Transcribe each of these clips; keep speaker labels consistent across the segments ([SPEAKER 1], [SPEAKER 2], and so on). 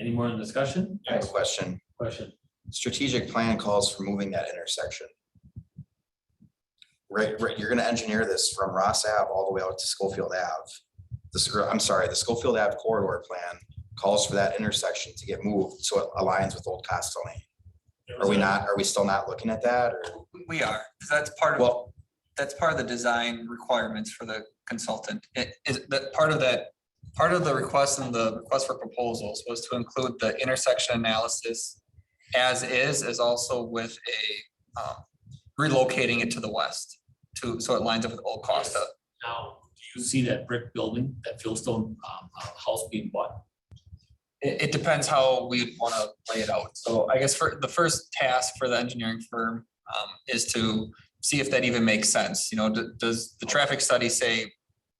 [SPEAKER 1] Any more in discussion?
[SPEAKER 2] I have a question.
[SPEAKER 1] Question.
[SPEAKER 2] Strategic plan calls for moving that intersection. Right, right, you're gonna engineer this from Ross Ave all the way out to Schofield Ave. The, Scho- I'm sorry, the Schofield Ave corridor plan calls for that intersection to get moved, so it aligns with Old Costa Lane. Are we not, are we still not looking at that, or,
[SPEAKER 3] We are, 'cause that's part of,
[SPEAKER 2] well,
[SPEAKER 3] that's part of the design requirements for the consultant. It is, that part of that, part of the request and the request for proposals was to include the intersection analysis as is, is also with a um, relocating it to the west to, so it lines up with Old Costa.
[SPEAKER 1] Now, do you see that brick building, that fieldstone um uh, house being bought?
[SPEAKER 3] It, it depends how we want to lay it out. So I guess for the first task for the engineering firm um, is to see if that even makes sense. You know, d- does the traffic study say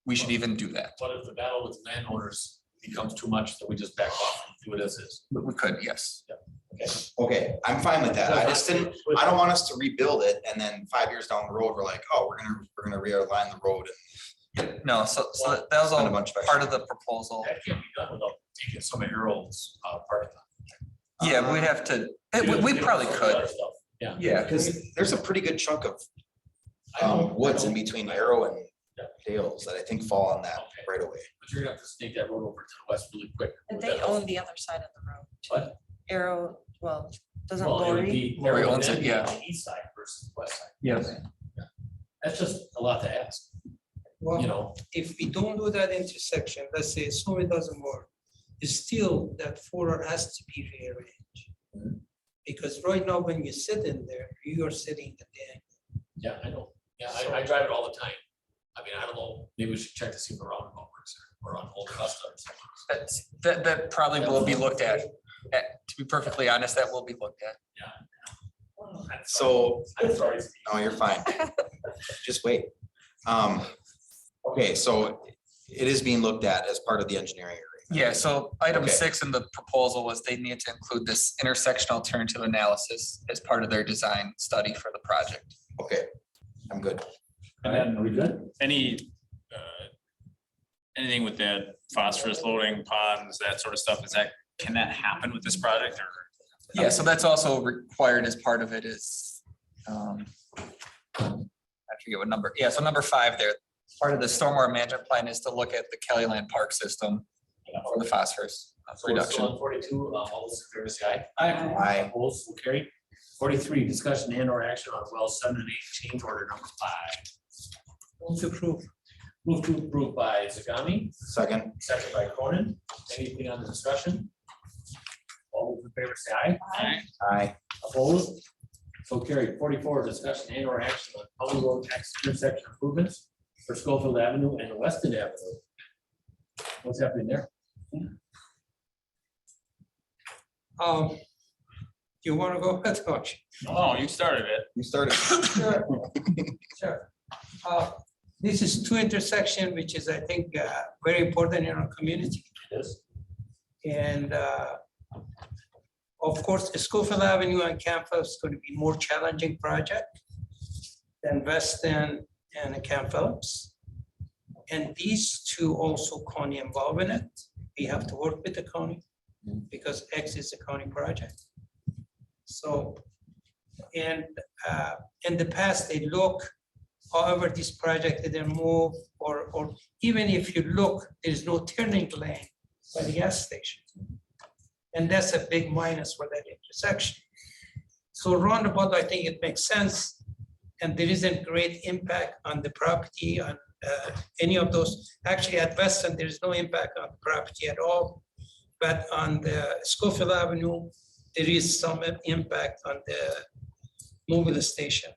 [SPEAKER 3] we should even do that?
[SPEAKER 1] What if the battle with landowners becomes too much, that we just back off and do it as is?
[SPEAKER 3] We we could, yes.
[SPEAKER 2] okay, I'm fine with that, I just didn't, I don't want us to rebuild it, and then five years down the road, we're like, oh, we're gonna, we're gonna realign the road
[SPEAKER 3] No, so, so that that was
[SPEAKER 2] and spend
[SPEAKER 3] all
[SPEAKER 2] a bunch of.
[SPEAKER 3] part of the proposal.
[SPEAKER 1] That can't be done without taking some of Harold's uh part of
[SPEAKER 3] Yeah, we'd have to,
[SPEAKER 1] that.
[SPEAKER 3] it- we, we probably could.
[SPEAKER 1] Yeah.
[SPEAKER 3] Yeah,
[SPEAKER 2] Because there's a pretty good chunk of
[SPEAKER 1] I know, I
[SPEAKER 2] um, woods in
[SPEAKER 1] know.
[SPEAKER 2] between Arrow and
[SPEAKER 1] Yeah.
[SPEAKER 2] Dales that I think fall on that
[SPEAKER 1] Okay,
[SPEAKER 2] right away.
[SPEAKER 1] But you're gonna have to snake that road over to the west really quick.
[SPEAKER 4] And
[SPEAKER 1] with
[SPEAKER 4] they
[SPEAKER 1] that house.
[SPEAKER 4] own the other side of the road. too.
[SPEAKER 1] What?
[SPEAKER 4] Arrow, well, doesn't
[SPEAKER 1] Well, it would
[SPEAKER 4] Lori?
[SPEAKER 1] be
[SPEAKER 3] Lori
[SPEAKER 1] Arrow
[SPEAKER 3] owns
[SPEAKER 1] and
[SPEAKER 3] it, yeah.
[SPEAKER 1] the East side versus west side.
[SPEAKER 3] Yes.
[SPEAKER 1] That's just a lot to ask, you
[SPEAKER 5] Well,
[SPEAKER 1] know,
[SPEAKER 5] if we don't do that intersection, let's say, so it doesn't work, it's still that four has to be rearranged. Because right now, when you sit in there, you are sitting at the end.
[SPEAKER 1] yeah, I know, yeah, I, I drive it all the time. I mean, I don't know, maybe we should check to see if the roundabout works or or on Old Costa or something.
[SPEAKER 3] That's, that, that probably will be looked at. Uh, To be perfectly honest, that will be looked at.
[SPEAKER 1] I'm sorry.
[SPEAKER 2] So,
[SPEAKER 1] I'm sorry. Steve.
[SPEAKER 2] no, you're fine. Just wait. Um, okay, so it is being looked at as part of the engineering agreement.
[SPEAKER 3] Yeah, so item
[SPEAKER 2] Okay.
[SPEAKER 3] six in the proposal was they need to include this intersection alternative analysis as part of their design study for the project.
[SPEAKER 2] Okay, I'm good.
[SPEAKER 1] And then, are we good?
[SPEAKER 6] any, uh, anything with that phosphorus loading ponds, that sort of stuff, is that, can that happen with this project or?
[SPEAKER 3] Yeah, so that's also required as part of it is, um, I forget what number, yeah, so number five there, part of the stormwater management plan is to look at the Kelly Land Park system for the phosphorus uh,
[SPEAKER 1] So we're still
[SPEAKER 3] reduction.
[SPEAKER 1] on Forty-two, uh, all those in favor say aye.
[SPEAKER 2] Aye.
[SPEAKER 1] Opposed, will carry. Forty-three, discussion and or action on well seven and eight, change order number five.
[SPEAKER 5] Move to approve.
[SPEAKER 1] Move to approve by Zagami,
[SPEAKER 2] Second,
[SPEAKER 1] second by Cronin. Anything on the discussion? All those in favor say aye.
[SPEAKER 2] aye.
[SPEAKER 1] Opposed? So carried. Forty-four, discussion and or action on public road tax intersection improvements for Schofield Avenue and Weston Avenue. What's happening there?
[SPEAKER 5] Um, you wanna go ahead, Coach?
[SPEAKER 6] No, you started it.
[SPEAKER 2] You started.
[SPEAKER 5] Sure, sure. Uh, This is two intersection, which is, I think, uh, very important in our community.
[SPEAKER 1] Yes.
[SPEAKER 5] And uh, of course, Schofield Avenue and Campbell is going to be more challenging project than Weston and Camp Phillips. And these two also county involved in it. We have to work with the county because X is a county project. So, and uh, in the past, they look, however, this project didn't move or, or even if you look, there's no turning lane by the gas station. And that's a big minus for that intersection. So roundabout, I think it makes sense, and there isn't great impact on the property, on uh, any of those. Actually, at Weston, there is no impact on the property at all, but on the Schofield Avenue, there is some impact on the mobile station.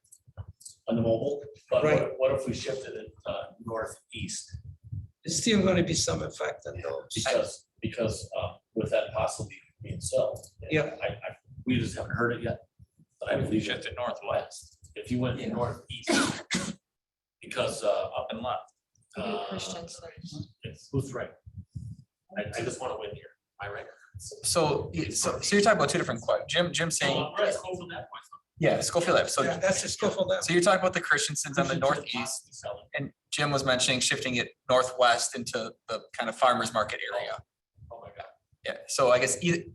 [SPEAKER 1] On the mobile, but what,
[SPEAKER 5] Right.
[SPEAKER 1] what if we shifted it, uh, northeast?
[SPEAKER 5] There's still gonna be some effect on those.
[SPEAKER 1] Because, because uh, with that possibly being so.
[SPEAKER 5] Yeah.
[SPEAKER 1] I, I, we just haven't heard it yet. But I believe
[SPEAKER 6] Shift
[SPEAKER 1] it
[SPEAKER 6] it northwest,
[SPEAKER 1] west, if you went
[SPEAKER 5] Yeah.
[SPEAKER 1] northeast. Because uh, up and left.
[SPEAKER 4] Maybe
[SPEAKER 1] uh,
[SPEAKER 4] Christensen.
[SPEAKER 1] yes, Who's right? I, I just want to win here, my right.
[SPEAKER 3] So, so, so you're talking about two different questions. Jim, Jim saying,
[SPEAKER 1] So let's go from that point.
[SPEAKER 3] yeah, Schofield Ave. So,
[SPEAKER 5] Yeah, That's the Schofield Avenue.
[SPEAKER 3] so you're talking about the Christiansens on the northeast and Jim was mentioning shifting it northwest into the kind of farmer's market area.
[SPEAKER 1] Oh, my God.
[SPEAKER 3] Yeah, so I guess e, either,